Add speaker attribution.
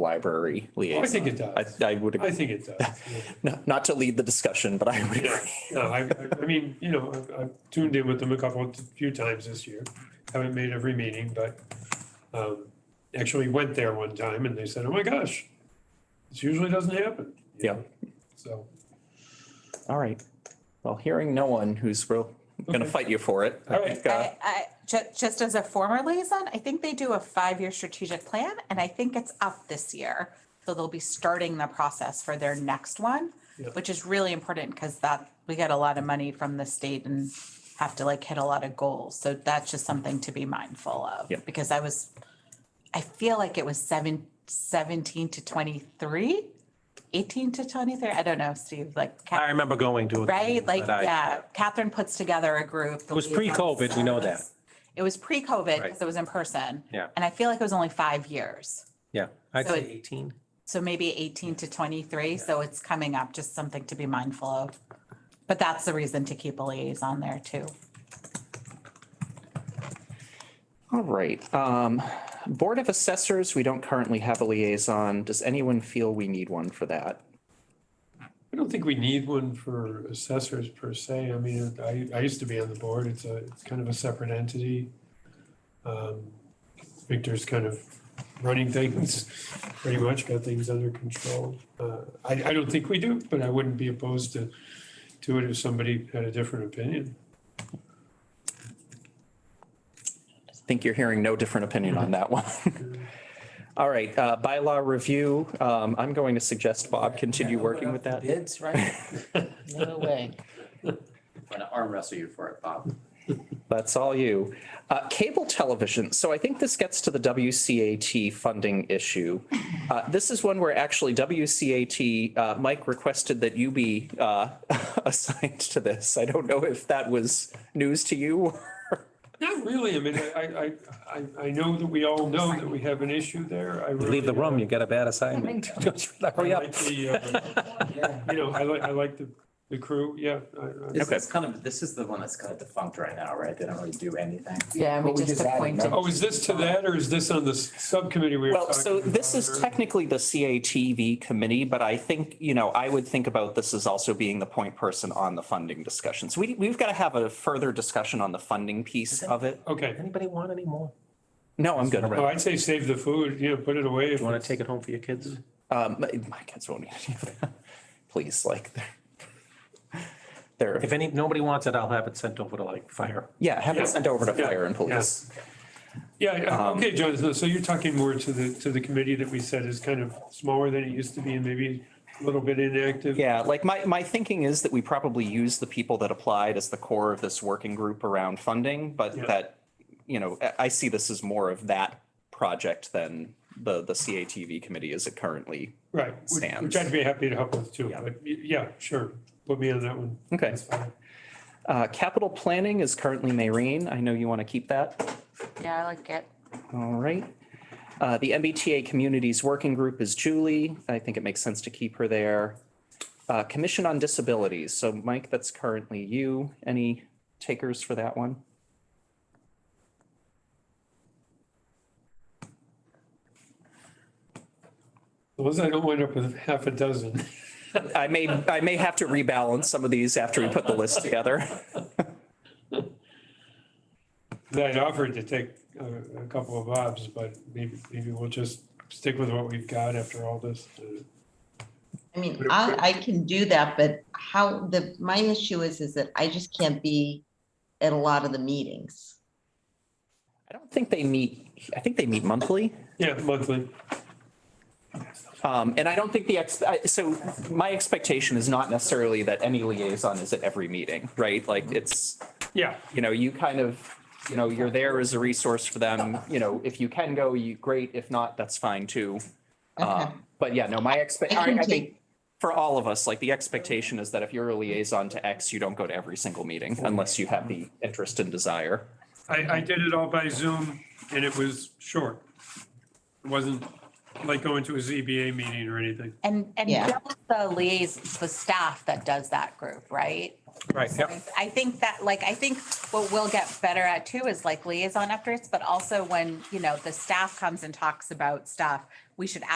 Speaker 1: library liaison.
Speaker 2: I think it does.
Speaker 1: I, I would,
Speaker 2: I
Speaker 1: agree.
Speaker 2: think it does. yeah.
Speaker 1: not, not to lead the discussion, but I would
Speaker 2: Yeah,
Speaker 1: agree.
Speaker 2: no, I, I- I mean, you know, I've- I've tuned in with them a couple, few times this year. Haven't made every meeting, but um, actually went there one time and they said, oh my gosh, this usually doesn't happen. you
Speaker 1: Yeah.
Speaker 2: know? So,
Speaker 1: All right. Well, hearing no one who's real, going to
Speaker 2: Okay.
Speaker 1: fight you for it. I
Speaker 2: All right.
Speaker 1: think, uh,
Speaker 3: I, I, ju- just as a former liaison, I think they do a five-year strategic plan and I think it's up this year. So they'll be starting the process for their next one,
Speaker 2: Yep.
Speaker 3: which is really important because that, we get a lot of money from the state and have to like hit a lot of goals. So that's just something to be mindful of.
Speaker 1: Yep.
Speaker 3: Because I was, I feel like it was seven, seventeen to twenty-three, eighteen to twenty-three. I don't know, Steve, like. Kat-
Speaker 4: I remember going to. it.
Speaker 3: Right, like,
Speaker 4: But I-
Speaker 3: yeah, Catherine puts together a group. It
Speaker 4: was pre-COVID, we know that.
Speaker 3: It was pre-COVID,
Speaker 4: Right.
Speaker 3: because it was in person.
Speaker 4: Yeah.
Speaker 3: And I feel like it was only five years,
Speaker 4: Yeah, I'd
Speaker 3: So
Speaker 4: say
Speaker 3: it-
Speaker 4: eighteen.
Speaker 3: so maybe eighteen to twenty-three, so it's coming up, just something to be mindful of. But that's the reason to keep a liaison there too.
Speaker 1: All right. Um, Board of Assessors, we don't currently have a liaison. Does anyone feel we need one for that?
Speaker 2: I don't think we need one for assessors per se. I mean, I, I used to be on the board. It's a, it's kind of a separate entity. Um, Victor's kind of running things, pretty much got things under control. Uh, I, I don't think we do, but I wouldn't be opposed to, to it if somebody had a different opinion.
Speaker 1: I think you're hearing no different opinion on that one. All right, uh, bylaw review. Um, I'm going to suggest Bob continue working with that.
Speaker 5: Bids, right? No way.
Speaker 6: I'm gonna arm wrestle you for it, Bob.
Speaker 1: That's all you. Uh, cable television. So I think this gets to the WCAT funding issue. Uh, this is one where actually WCAT, uh, Mike requested that you be, uh, assigned to this. I don't know if that was news to you. or-
Speaker 2: Not really. I mean, I, I, I, I know that we all know that we have an issue there. I
Speaker 4: You Leave the room, you get a bad assignment. Hurry
Speaker 2: I
Speaker 4: up.
Speaker 2: like the, uh, You know, I like, I like the, the crew. Yeah. I- I-
Speaker 6: This
Speaker 1: Okay.
Speaker 6: is kind of, this is the one that's kind of defunct right now, right? They don't really do anything.
Speaker 5: Yeah, we
Speaker 3: But we
Speaker 5: just
Speaker 3: just added
Speaker 5: appointed.
Speaker 2: Oh, is this to that or is this on the s- subcommittee we were talking
Speaker 1: Well,
Speaker 2: about?
Speaker 1: so this is
Speaker 2: earlier?
Speaker 1: technically the CATV committee, but I think, you know, I would think about this as also being the point person on the funding discussion. So we, we've got to have a further discussion on the funding piece of it.
Speaker 2: Okay.
Speaker 4: Anybody want any more?
Speaker 1: No, I'm good.
Speaker 2: Oh, I'd say save the food, you know, put it away. if
Speaker 4: You want
Speaker 2: it's-
Speaker 4: to take it home for your kids?
Speaker 1: Um, my, my kids won't eat any of that. Please, like, they're- they're,
Speaker 4: If any, nobody wants it, I'll have it sent over to like fire.
Speaker 1: yeah, have it sent over to
Speaker 2: Yeah,
Speaker 1: fire and police.
Speaker 2: Yeah, Yeah, okay, Jonathan, so you're talking more to the, to the committee that we said is kind of smaller than it used to be and maybe a little bit inactive.
Speaker 1: Yeah, like my, my thinking is that we probably use the people that applied as the core of this working group around funding, but
Speaker 2: Yeah.
Speaker 1: that, you know, I, I see this as more of that project than the, the CATV committee as it currently.
Speaker 2: Right, which- which
Speaker 1: Stands.
Speaker 2: I'd be happy to help with too,
Speaker 1: Yeah.
Speaker 2: but y- yeah, sure, put me on that one.
Speaker 1: Okay.
Speaker 2: That's fine.
Speaker 1: Uh, capital planning is currently Maureen. I know you want to keep that.
Speaker 3: Yeah, I like it.
Speaker 1: All right. Uh, The MBTA Communities Working Group is Julie. I think it makes sense to keep her there. Uh, Commission on Disabilities. So Mike, that's currently you. Any takers for that one?
Speaker 2: As long as I don't wind up with half a dozen.
Speaker 1: I may, I may have to rebalance some of these after we put the list together.
Speaker 2: I'd offered to take a, a couple of obs, but maybe, maybe we'll just stick with what we've got after all this. uh,
Speaker 7: I mean, I, I can do that, but how, the, my issue is, is that I just can't be at a lot of the meetings.
Speaker 1: I don't think they meet, I think they meet monthly.
Speaker 2: Yeah, monthly.
Speaker 1: Um, And I don't think the, ex- I- so my expectation is not necessarily that any liaison is at every meeting, right? Like it's,
Speaker 2: Yeah,
Speaker 1: you know, you kind of, you know, you're there as a resource for them. You know, if you can go, you, great. If not, that's fine too.
Speaker 7: Okay.
Speaker 1: Um, But yeah, no, my expect,
Speaker 7: I can
Speaker 1: I I think
Speaker 7: take-
Speaker 1: for all of us, like the expectation is that if you're a liaison to X, you don't go to every single meeting unless you have the interest and desire.
Speaker 2: I, I did it all by Zoom and it was short. It wasn't like going to a ZBA meeting or anything.
Speaker 3: And, and
Speaker 7: Yeah.
Speaker 3: Bill's the liaison, the staff that does that group, right?
Speaker 4: Right,
Speaker 3: I I think that, like, I think what we'll get better at too is like liaison efforts, but also when, you know, the staff comes and talks about stuff, we should ask